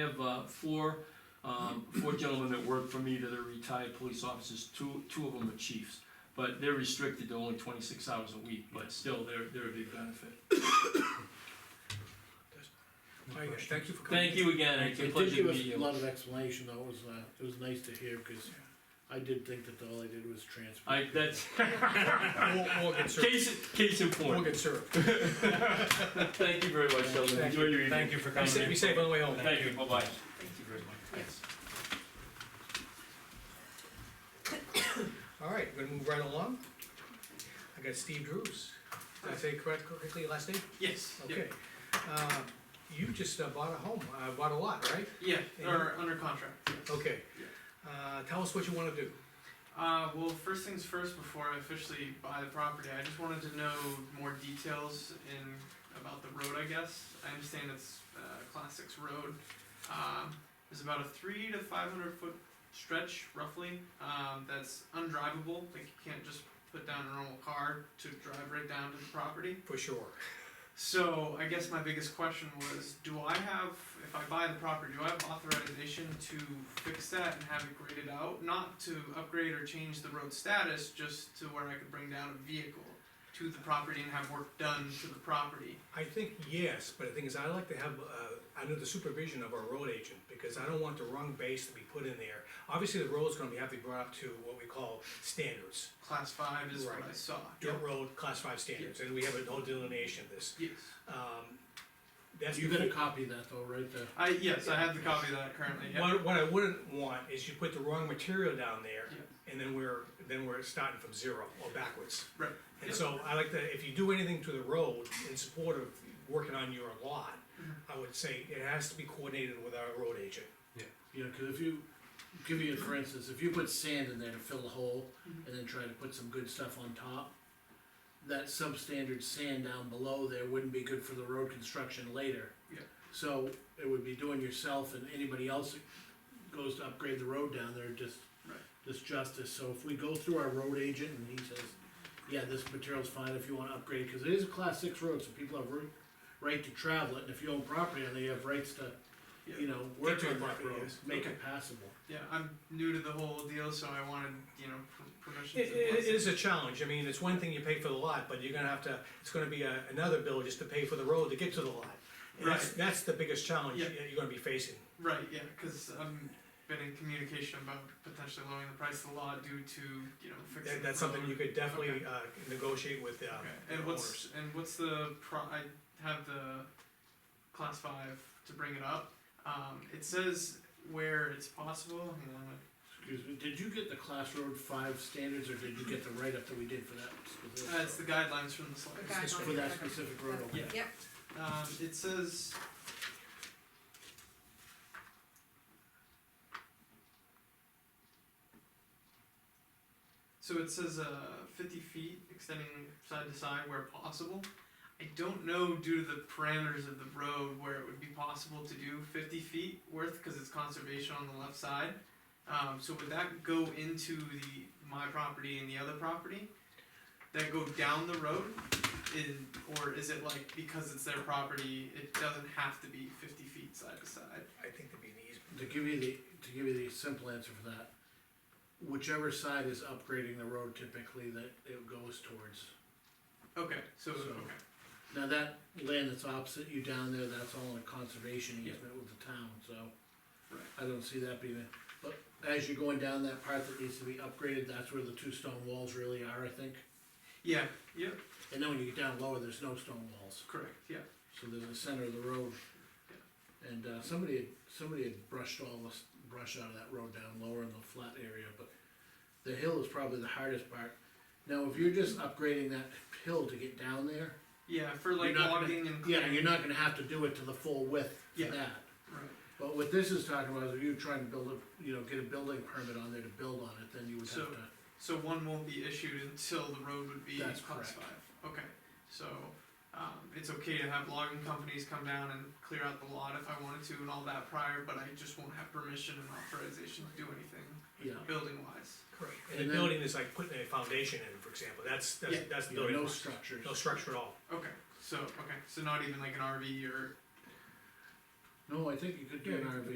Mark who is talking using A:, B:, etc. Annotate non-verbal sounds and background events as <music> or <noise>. A: have, uh, four, um, four gentlemen that work for me that are retired police officers, two, two of them are chiefs. But they're restricted to only twenty-six hours a week, but still, they're, they're a big benefit.
B: All right, guys, thank you for coming.
A: Thank you again, it's a
C: It did
A: pleasure
C: give
A: to
C: us
A: meet
C: a
A: you.
C: lot of explanation though, it was, uh, it was nice to hear, cause I did think that all I did was transfer.
A: I, that's,
B: We'll, we'll get served,
A: case, case in
B: we'll
A: point,
B: get
A: <laughs>
B: served.
A: thank you very much, gentlemen,
B: Thank
A: enjoy your evening.
D: Thank you for
B: Be
D: coming
B: safe,
D: in.
B: be safe on the way home.
A: Thank you, bye-bye. Thank you very much. Thanks.
B: All right, we're gonna move right along. I got Steve Drews. Did I say correct- correctly your last name?
E: Yes, yeah,
B: Okay. Uh, You just uh, bought a home, uh, bought a lot, right?
E: yeah,
B: And
E: or under contract. yes.
B: Okay. Uh, Tell us what you wanna do.
E: Uh, well, first things first, before I officially buy the property, I just wanted to know more details in, about the road, I guess. I understand it's, uh, class six road. Um, there's about a three to five hundred foot stretch roughly, um, that's undrivable, like you can't just put down a normal car to drive right down to the property.
B: For sure.
E: So I guess my biggest question was, do I have, if I buy the property, do I have authorization to fix that and have it graded out? Not to upgrade or change the road status, just to where I could bring down a vehicle to the property and have work done to the property.
B: I think yes, but the thing is, I like to have, uh, under the supervision of our road agent, because I don't want the wrong base to be put in there. Obviously, the road's gonna be, have to be brought up to what we call standards,
E: Class five is what I
B: Right.
E: saw.
B: dirt road, class five standards, and we have a whole delineation of this.
E: Yes,
B: Um, That's.
C: You
B: the-
C: got a copy of that though, right there?
E: I, yes, I have the copy of that currently, yeah.
B: What, what I wouldn't want is you put the wrong material down there, and then we're, then we're starting from zero or backwards.
E: Right.
B: And so I like to, if you do anything to the road in support of working on your lot,
E: Mm-hmm.
B: I would say it has to be coordinated with our road agent.
C: You know, cause if you, give you, for instance, if you put sand in there to fill the hole, and then try to put some good stuff on top, that substandard sand down below there wouldn't be good for the road construction later.
E: Yeah.
C: So, it would be doing yourself and anybody else that goes to upgrade the road down there, just,
E: Right.
C: just justice, so if we go through our road agent and he says, yeah, this material's fine if you wanna upgrade, it," cause it is a class six road, so people have right, right to travel it, and if you own property, then you have rights to you know,
B: Get
C: work
B: to
C: on
B: the
C: that
B: property,
C: road,
B: yes.
C: make it passable.
E: Yeah, I'm new to the whole deal, so I wanted, you know, per- permission
B: It,
E: to.
B: it it is a challenge, I mean, it's one thing you pay for the lot, but you're gonna have to, it's gonna be a- another bill just to pay for the road to get to the lot. And that's,
E: Right.
B: that's the biggest challenge
E: Yeah.
B: that you're gonna be facing.
E: Right, yeah, because I've been in communication about potentially lowering the price of the lot due to, you know, fixing
B: That,
E: the
B: that's something
E: road.
B: you could definitely, uh, negotiate with, uh,
E: Okay,
B: the
E: and
B: owners.
E: what's, and what's the pro, I have the class five to bring it up, um, it says where it's possible, hang on,
C: Excuse me, did you get the class road five standards, or did you get the write-up that we did for that specific?
E: uh, it's the guidelines from the slides.
F: guidelines.
C: For that specific road over there?
F: Yep,
E: Um, it says. So it says, uh, fifty feet extending side to side where possible. I don't know due to the parameters of the road where it would be possible to do fifty feet worth, cause it's conservation on the left side. Um, so would that go into the, my property and the other property? That go down the road? in, or is it like because it's their property, it doesn't have to be fifty feet side to side?
B: I think that'd be an easy.
C: To give you the, to give you the simple answer for that, whichever side is upgrading the road typically that it goes towards.
E: Okay, so,
C: So-
E: okay,
C: Now, that land that's opposite you down there, that's all in a conservation easement with the town, so.
E: Right.
C: I don't see that being, a- but as you're going down that part that needs to be upgraded, that's where the two stone walls really are, I think.
E: yeah, yep,
C: And then when you get down lower, there's no stone walls,
E: correct, yeah,
C: so there's a center of the road. And, uh, somebody, had- somebody had brushed all this brush out of that road down lower in the flat area, but the hill is probably the hardest part. Now, if you're just upgrading that hill to get down there,
E: yeah, for
C: You're
E: like
C: not gonna-
E: logging and
C: yeah,
E: clearing.
C: you're not gonna have to do it to the full width for
E: Yeah.
C: that.
E: Right,
C: But what this is talking about is if you're trying to build a, you know, get a building permit on there to build on it, then you would have
E: So-
C: to.
E: so one won't be issued until the road would be
C: That's
E: class
C: correct.
E: five, okay, so, um, it's okay to have logging companies come down and clear out the lot if I wanted to and all that prior, but I just won't have permission and authorization to do anything
C: Yeah,
E: building wise.
B: Correct,
C: And
B: and the
C: then-
B: building is like putting a foundation in, for example, that's, that's,
E: Yeah.
B: that's the
C: you know,
B: building.
C: no
B: block.
C: structures.
B: No structure at all.
E: Okay, so, okay, so not even like an RV or
C: No, I think you could do an RV